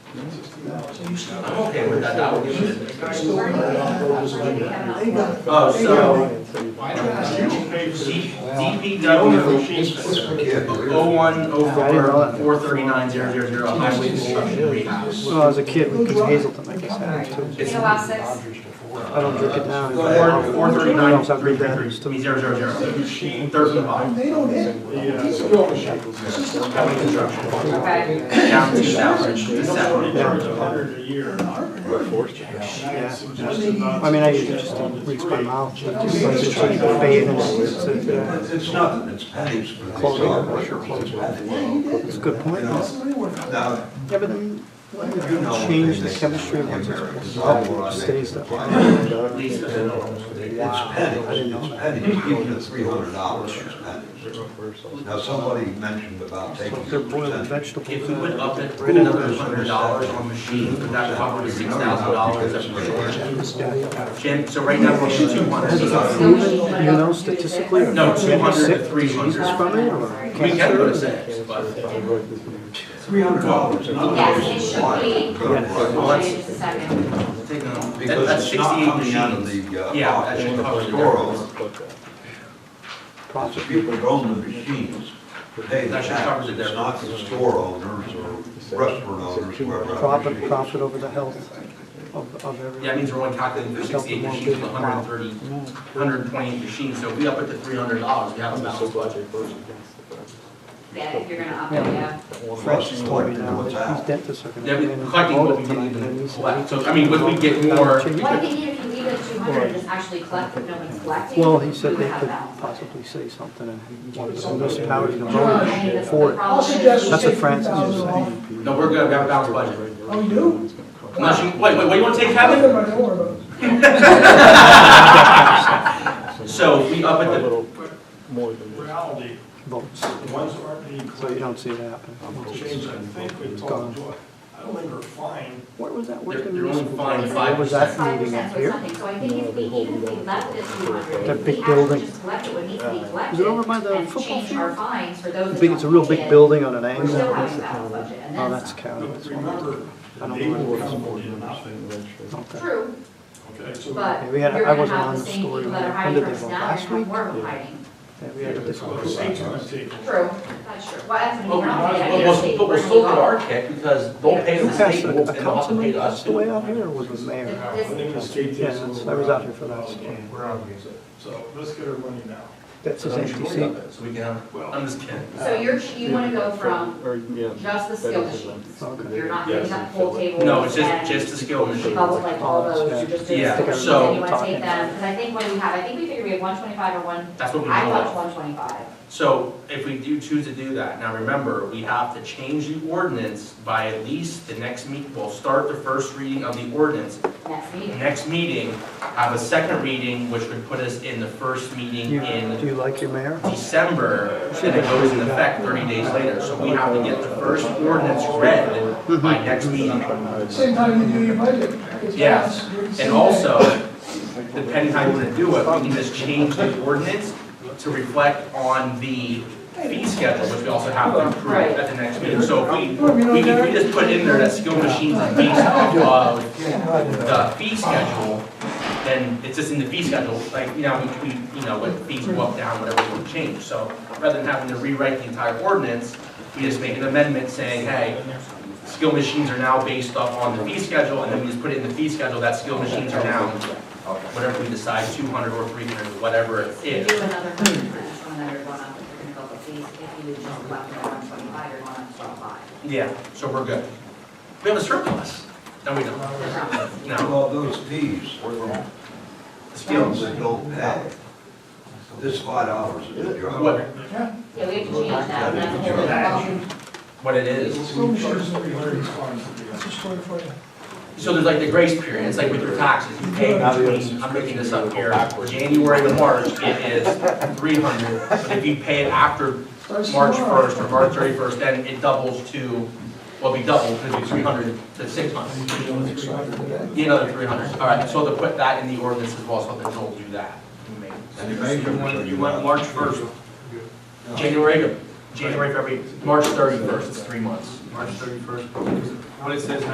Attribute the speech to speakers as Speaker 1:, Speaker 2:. Speaker 1: I'm okay with that, that would give us.
Speaker 2: Oh, so,
Speaker 1: DPW oh one, oh four, four thirty-nine, zero, zero, zero, highway construction rehab.
Speaker 3: Well, as a kid, we could Hazelton, I guess, I had too.
Speaker 1: It's
Speaker 4: allow six?
Speaker 3: I don't drink it now.
Speaker 2: Go ahead.
Speaker 1: four, four thirty-nine,
Speaker 3: Sometimes I
Speaker 1: three,
Speaker 3: read
Speaker 1: three,
Speaker 3: that.
Speaker 1: three, I mean, zero, zero, zero. Thirteen five,
Speaker 2: they don't hit.
Speaker 1: highway construction,
Speaker 4: Okay.
Speaker 1: down two thousand, to seven.
Speaker 5: Hundred a year.
Speaker 3: I mean, I usually just reach my mouth, but just like it's like a fade and it's, it's a- uh,
Speaker 6: It's nothing, it's pennies for these.
Speaker 3: Clothing.
Speaker 6: dollars, your clothes, pennies.
Speaker 3: it's a good point. Yeah,
Speaker 6: Now,
Speaker 3: but then, why would you
Speaker 6: you know
Speaker 3: change the
Speaker 6: they-
Speaker 3: chemistry of what's
Speaker 6: Americans,
Speaker 3: expressed?
Speaker 6: all the
Speaker 3: It
Speaker 6: laws they
Speaker 3: stays that way.
Speaker 6: comply with.
Speaker 1: Lisa,
Speaker 6: It's pennies, it's pennies, even at three hundred dollars, it's pennies. Now, somebody mentioned about
Speaker 3: It's
Speaker 6: taking.
Speaker 3: like they're boiling
Speaker 6: percentage.
Speaker 1: If
Speaker 3: vegetables.
Speaker 1: we would
Speaker 3: uh,
Speaker 1: up it, put another hundred dollars on machine, would that cover the six thousand dollars that we're short?
Speaker 3: this guy.
Speaker 1: Jim, so right now, we're at two hundred.
Speaker 3: You know statistically? are
Speaker 1: No,
Speaker 3: people
Speaker 1: two hundred
Speaker 3: sick
Speaker 1: to three hundred.
Speaker 3: From it or
Speaker 1: We can go to
Speaker 3: cancer?
Speaker 1: six, but.
Speaker 6: Three hundred dollars.
Speaker 4: Yes, it should be.
Speaker 1: Well, that's-
Speaker 4: Just a second.
Speaker 1: Take them all. That- That's
Speaker 6: um, Because it's not
Speaker 1: sixty-eight
Speaker 6: coming out of
Speaker 1: machines.
Speaker 6: the, uh,
Speaker 1: Yeah, that
Speaker 6: pocket
Speaker 1: should
Speaker 6: of
Speaker 1: cover
Speaker 6: the
Speaker 1: the
Speaker 6: borough.
Speaker 1: difference.
Speaker 6: Lots of people who own the machines, pay the
Speaker 1: That should
Speaker 6: tax,
Speaker 1: cover the
Speaker 6: it's not the store owners or restaurant owners, whoever. owns the
Speaker 3: Profit,
Speaker 6: machines.
Speaker 3: profit over the health of, of everyone.
Speaker 1: Yeah, it means we're only calculating for sixty-eight machines, with 130, 128 machines, so if we up it to three hundred dollars, we have a balanced budget.
Speaker 4: Yeah, if you're gonna up it, yeah.
Speaker 3: Francis told me now that these dentists are gonna.
Speaker 1: Yeah,
Speaker 3: come
Speaker 1: we
Speaker 3: in and
Speaker 1: collecting
Speaker 3: vote
Speaker 1: what we
Speaker 3: tonight,
Speaker 1: didn't
Speaker 3: and
Speaker 1: even
Speaker 3: these-
Speaker 1: collect, so, I mean, would we get more? we
Speaker 4: What
Speaker 1: could-
Speaker 4: if you need, if you leave it two hundred and just actually collect, but no one's collecting?
Speaker 3: Well, he said
Speaker 4: you
Speaker 3: they
Speaker 4: have
Speaker 3: could
Speaker 4: that.
Speaker 3: possibly say something and one of the municipalities to
Speaker 4: I mean,
Speaker 3: vote
Speaker 4: that's the
Speaker 3: for it.
Speaker 4: problem.
Speaker 3: That's what Francis is saying.
Speaker 2: Oh,
Speaker 1: No, we're good, we have a balanced budget.
Speaker 2: you do?
Speaker 1: Unless you, wait, wait, what do you wanna take,
Speaker 2: I live
Speaker 1: Kevin?
Speaker 2: in my door,
Speaker 1: So if we up it to,
Speaker 7: More than this.
Speaker 5: Reality,
Speaker 3: Votes,
Speaker 5: the ones that aren't being
Speaker 3: so you
Speaker 5: collected,
Speaker 3: don't see it happen. Once
Speaker 5: change,
Speaker 3: it's
Speaker 5: I think we
Speaker 3: gone.
Speaker 5: talked, to- I don't think we're fine.
Speaker 3: Where was that
Speaker 1: they're,
Speaker 3: working
Speaker 1: they're only
Speaker 3: municipal?
Speaker 1: fined
Speaker 4: It's
Speaker 1: five
Speaker 3: Was
Speaker 1: percent.
Speaker 3: that
Speaker 4: Five
Speaker 3: meeting
Speaker 4: percent
Speaker 3: up
Speaker 4: was
Speaker 3: here?
Speaker 4: nothing, so I think if we, even if we left it two hundred, if
Speaker 3: That big
Speaker 4: we actually
Speaker 3: building.
Speaker 4: just collected what needs to be
Speaker 3: Is it
Speaker 4: collected
Speaker 3: over by the
Speaker 4: and
Speaker 3: football
Speaker 4: changed our fines for those
Speaker 3: I
Speaker 4: that
Speaker 3: think it's a
Speaker 4: don't
Speaker 3: real
Speaker 4: need
Speaker 3: big
Speaker 4: it,
Speaker 3: building on an
Speaker 4: We're
Speaker 3: angle.
Speaker 4: still having a balanced budget, and
Speaker 3: Oh,
Speaker 4: that's not.
Speaker 3: that's county.
Speaker 5: But remember,
Speaker 3: I
Speaker 5: the
Speaker 3: don't know.
Speaker 5: neighborhood council did nothing.
Speaker 3: Okay.
Speaker 4: True,
Speaker 5: Okay, so
Speaker 4: but
Speaker 3: Yeah,
Speaker 4: you're
Speaker 3: we had- I
Speaker 4: gonna
Speaker 3: wasn't on
Speaker 4: have the
Speaker 3: the
Speaker 4: same
Speaker 3: story
Speaker 4: people that
Speaker 3: when
Speaker 4: are
Speaker 3: they
Speaker 4: hiding from us
Speaker 3: ended it
Speaker 4: now,
Speaker 3: last
Speaker 4: you're gonna have more
Speaker 3: week.
Speaker 4: of them hiding.
Speaker 3: Yeah, we had a
Speaker 5: that's what
Speaker 3: different-
Speaker 5: the state's gonna take. over.
Speaker 4: True, that's true. Well,
Speaker 1: But
Speaker 4: that's what
Speaker 1: we might as
Speaker 4: we're not
Speaker 1: well-
Speaker 4: gonna get.
Speaker 1: but- but we'll still get our kick, because they'll pay the
Speaker 3: You guys,
Speaker 1: state,
Speaker 3: a
Speaker 1: and
Speaker 3: a
Speaker 1: they'll also pay
Speaker 3: councilman
Speaker 1: us.
Speaker 3: passed away out here, or was the mayor?
Speaker 5: I think the state takes
Speaker 3: Yeah, that's- I was out here for that.
Speaker 5: We're out here. So let's get our money now.
Speaker 3: That's his
Speaker 1: So we should
Speaker 3: empty
Speaker 1: worry
Speaker 3: seat.
Speaker 1: about that, So we can,
Speaker 5: Well-
Speaker 1: I'm just kidding.
Speaker 4: So you're, you wanna go from
Speaker 7: Or, yeah.
Speaker 4: just the skill machines.
Speaker 3: Okay.
Speaker 4: You're not doing that whole table.
Speaker 1: No, it's
Speaker 4: and
Speaker 1: just, just the skill machine.
Speaker 4: Bubble like all those, you're just doing.
Speaker 1: Yeah,
Speaker 4: skills,
Speaker 1: so-
Speaker 4: And you wanna take them, cause I think when we have, I think we figured we have one twenty-five or one,
Speaker 1: That's what we
Speaker 4: I thought
Speaker 1: know.
Speaker 4: one twenty-five.
Speaker 1: So if we do choose to do that, now remember, we have to change the ordinance by at least the next meet, we'll start the first reading of the ordinance.
Speaker 4: Next
Speaker 1: The
Speaker 4: meeting.
Speaker 1: Next meeting, have a second reading, which would put us in the first meeting
Speaker 3: You- Do
Speaker 1: in
Speaker 3: you like your mayor?
Speaker 1: December, and it goes in effect thirty days later. So we have to get the first ordinance read by next meeting.
Speaker 2: Same time you do your budget. It's
Speaker 1: Yes,
Speaker 2: fast. You're the
Speaker 1: and
Speaker 2: same
Speaker 1: also, depending how you want to do it, we can just change the ordinance to reflect on the fee schedule, which we also have to approve at the next meeting. So if we, we can, we just put in there that skill machines are based off of the fee schedule, then it's just in the fee schedule, like, you know, we, we, you know, what fees go up, down, whatever we want to change. So rather than having to rewrite the entire ordinance, we just make an amendment saying, hey, skill machines are now based off on the fee schedule, and then we just put it in the fee schedule, that skill machines are now, whatever we decide, two hundred or three hundred, whatever it
Speaker 4: You
Speaker 1: is.
Speaker 4: do another hundred, that's another one up, if you're gonna go with these, if you just left at one twenty-five, you're going up to twelve-five.
Speaker 1: Yeah, so we're good. We have a surplus. No, we don't. No.
Speaker 6: Well, those fees were from skills that don't pay. This five dollars is a
Speaker 1: What,
Speaker 6: job.
Speaker 4: Yeah, we have to change that, and that's a whole other problem.
Speaker 1: what it is.
Speaker 2: School shooters,
Speaker 5: Three hundred fines to be
Speaker 2: that's
Speaker 5: up.
Speaker 2: a story for you.
Speaker 1: So there's like the grace period, it's like with your taxes, you pay between, I'm making this up here, January to March, it is three hundred. But if you pay it after
Speaker 2: Starts
Speaker 1: March
Speaker 2: tomorrow.
Speaker 1: first or March thirty-first, then it doubles to, well, we double, because it's three hundred to six hundred. Yeah, another three hundred, all right, so they'll put that in the ordinance as well, so that they'll do that.
Speaker 6: And you make them-
Speaker 1: You want March first, January, to- January, February, March thirty-first, it's three months. March thirty-first. What it says